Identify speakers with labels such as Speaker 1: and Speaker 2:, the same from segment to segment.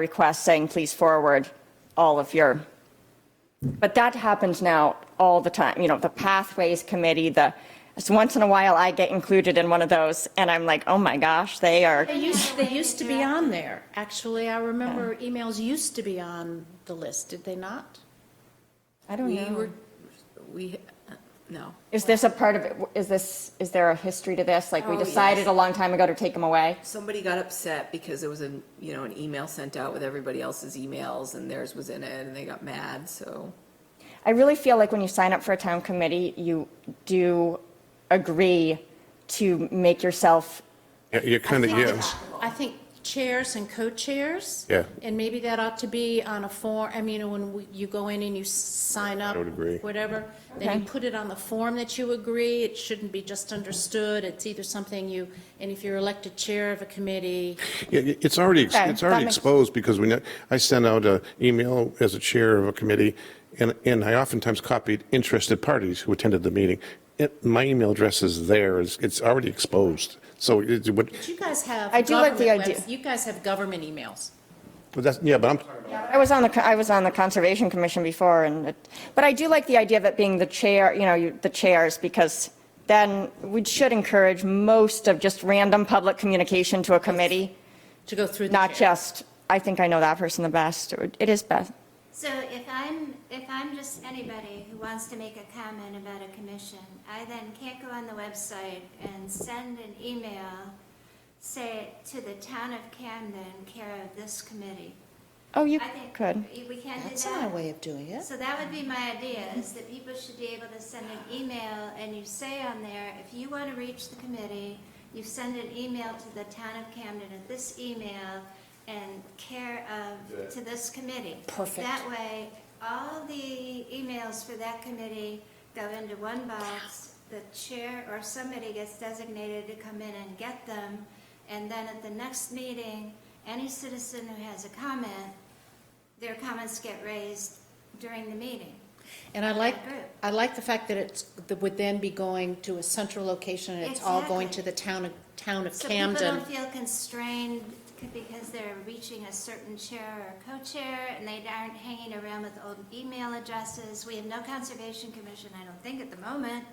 Speaker 1: request saying, please forward all of your, but that happens now all the time, you know, the Pathways Committee, the, so once in a while I get included in one of those and I'm like, oh my gosh, they are,
Speaker 2: They used, they used to be on there. Actually, I remember emails used to be on the list, did they not?
Speaker 1: I don't
Speaker 3: We were,
Speaker 1: know.
Speaker 3: we, uh, no.
Speaker 1: Is this a part of it, is this, is there a history to this? Like, we
Speaker 3: Oh, yes.
Speaker 1: decided a long time ago to take them away?
Speaker 3: Somebody got upset because there was a, you know, an email sent out with everybody else's emails and theirs was in it and they got mad, so.
Speaker 1: I really feel like when you sign up for a town committee, you do agree to make yourself
Speaker 4: Yeah, You're kind of, yeah,
Speaker 2: I think chairs and co-chairs.
Speaker 4: Yeah.
Speaker 2: And maybe that ought to be on a form, I mean, when we- you go in and you sign up.
Speaker 4: would agree.
Speaker 2: Whatever, then you
Speaker 1: Okay.
Speaker 2: put it on the form that you agree. It shouldn't be just understood. It's either something you, and if you're elected chair of a committee,
Speaker 4: Yeah, it- it's already, ex-
Speaker 1: Okay,
Speaker 4: it's
Speaker 1: that
Speaker 4: already
Speaker 1: makes-
Speaker 4: exposed because we, know- I sent out an email as a chair of a committee and, and I oftentimes copied interested parties who attended the meeting. It- My email address is there, it's, it's already exposed. So it would,
Speaker 2: you guys have.
Speaker 1: I do like the
Speaker 2: government
Speaker 1: idea.
Speaker 2: webs- You guys have government emails.
Speaker 4: but that's, yeah, but I'm,
Speaker 1: I was on the, I was on the Conservation Commission before, and, it- but I do like the idea of it being the chair, you know, you- the chairs, because then we should encourage most of just random public communication to a committee,
Speaker 2: To go through the
Speaker 1: not
Speaker 2: chair.
Speaker 1: just, I think I know that person the best, or it is best.
Speaker 5: So if I'm, if I'm just anybody who wants to make a comment about a commission, I then can't go on the website and send an email, say, to the town of Camden, care of this committee.
Speaker 1: Oh, you
Speaker 5: I think
Speaker 1: could.
Speaker 5: We can't do that.
Speaker 2: That's not a way of doing it.
Speaker 5: So that would be my idea, is that people should be able to send an email, and you say on there, if you want to reach the committee, you send an email to the town of Camden at this email, and care of, to this committee.
Speaker 2: Perfect.
Speaker 5: That way, all the emails for that committee go into one box, the chair or somebody gets designated to come in and get them, and then at the next meeting, any citizen who has a comment, their comments get raised during the meeting.
Speaker 2: And I like,
Speaker 5: Good.
Speaker 2: I like the fact that it's, that would then be going to a central location, and it's all going to
Speaker 5: Exactly.
Speaker 2: the town of, town of
Speaker 5: So people
Speaker 2: Camden.
Speaker 5: don't feel constrained c- because they're reaching a certain chair or co-chair and they aren't hanging around with old email addresses. We have no conservation commission, I don't think, at the moment.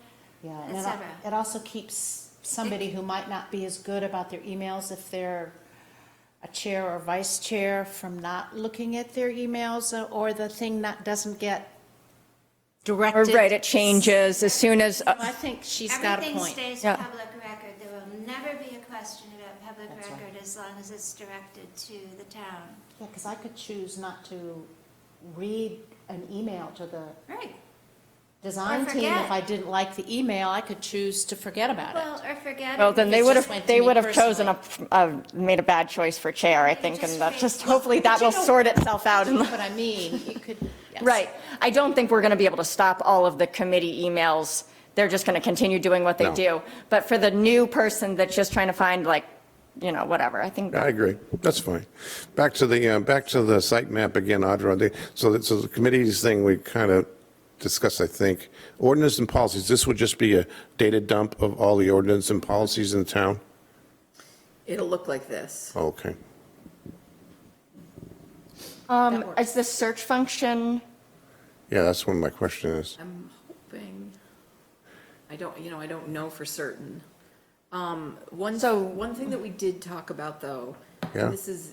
Speaker 2: Yeah,
Speaker 5: et
Speaker 2: and it
Speaker 5: cetera.
Speaker 2: al- it also keeps somebody who might not be as good about their emails if they're a chair or vice chair from not looking at their emails, uh, or the thing that doesn't get
Speaker 1: Or
Speaker 2: directed.
Speaker 1: right, it changes as soon as, uh,
Speaker 2: I think she's got a
Speaker 5: Everything
Speaker 2: point.
Speaker 5: stays
Speaker 1: Yeah.
Speaker 5: public record. There will never be a question about public record as long as it's directed to the town.
Speaker 2: Yeah, because I could choose not to read an email to the
Speaker 5: Right.
Speaker 2: design team if
Speaker 5: forget.
Speaker 2: I didn't like the email. I could choose to forget about it.
Speaker 5: Well, or forget.
Speaker 1: well,
Speaker 5: it.
Speaker 1: then they
Speaker 2: It's
Speaker 1: would
Speaker 2: just meant
Speaker 1: have,
Speaker 2: to
Speaker 1: they
Speaker 2: me
Speaker 1: would have chosen a,
Speaker 2: personally.
Speaker 1: a- made a bad choice for chair, I think, and that, just hopefully that will
Speaker 2: you know-
Speaker 1: sort itself out in the
Speaker 2: But I mean, you could. yes.
Speaker 1: Right. I don't think we're going to be able to stop all of the committee emails. They're just going to continue doing what they
Speaker 4: No.
Speaker 1: do. But for the new person that's just trying to find like, you know, whatever, I think,
Speaker 4: I agree, that's fine. Back to the, uh, back to the site map again, Audra, They- so that, so the committees thing we kind of discussed, I think. Ordinance and policies, this would just be a data dump of all the ordinance and policies in town?
Speaker 3: It'll look like this.
Speaker 4: Okay.
Speaker 1: um, is the search function,
Speaker 4: Yeah, that's one of my question is.
Speaker 3: I'm hoping, I don't, you know, I don't know for certain. Um, one,
Speaker 1: So-
Speaker 3: one thing that we did talk about though,
Speaker 4: Yeah.
Speaker 3: and this is,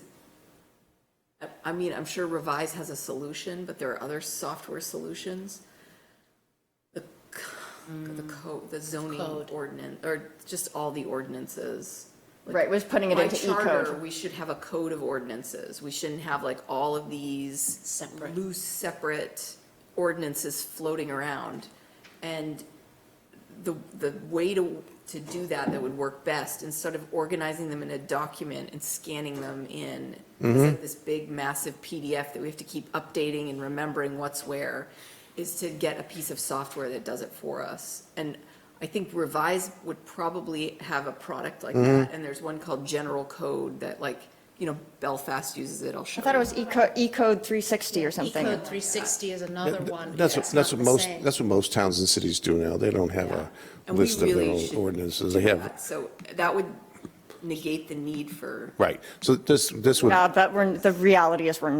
Speaker 3: I- I mean, I'm sure Revise has a solution, but there are other software solutions. The, c- the code, the zoning
Speaker 2: Code.
Speaker 3: ordinance, or just all the ordinances. Like,
Speaker 1: right, was putting it
Speaker 3: by
Speaker 1: into E
Speaker 3: charter,
Speaker 1: E-code.
Speaker 3: we should have a code of ordinances. We shouldn't have like all of these.
Speaker 2: Separate.
Speaker 3: Loose, separate ordinances floating around. And the, the way to, to do that that would work best, instead of organizing them in a document and scanning them in, is like this big massive PDF that we have to keep updating and remembering what's where, is to get a piece of software that does it for us. And I think Revise would probably have a product like that, and there's one called General Code that like, you know, Belfast uses it, I'll show
Speaker 1: I
Speaker 3: you.
Speaker 1: thought it was E-code, E-code 360 or something.
Speaker 2: Ecode 360 is another one.
Speaker 4: That's, what-
Speaker 2: It's
Speaker 4: that's
Speaker 2: not
Speaker 4: what
Speaker 2: the
Speaker 4: most,
Speaker 2: same.
Speaker 4: that's what most towns and cities do now. They don't have a
Speaker 3: And we
Speaker 4: list of their
Speaker 3: really
Speaker 4: own
Speaker 3: should
Speaker 4: ordinances. They
Speaker 3: do
Speaker 4: have,
Speaker 3: that. So that would, negate the need for
Speaker 4: Right, so this, this would.
Speaker 1: Yeah, but we're, the reality is we're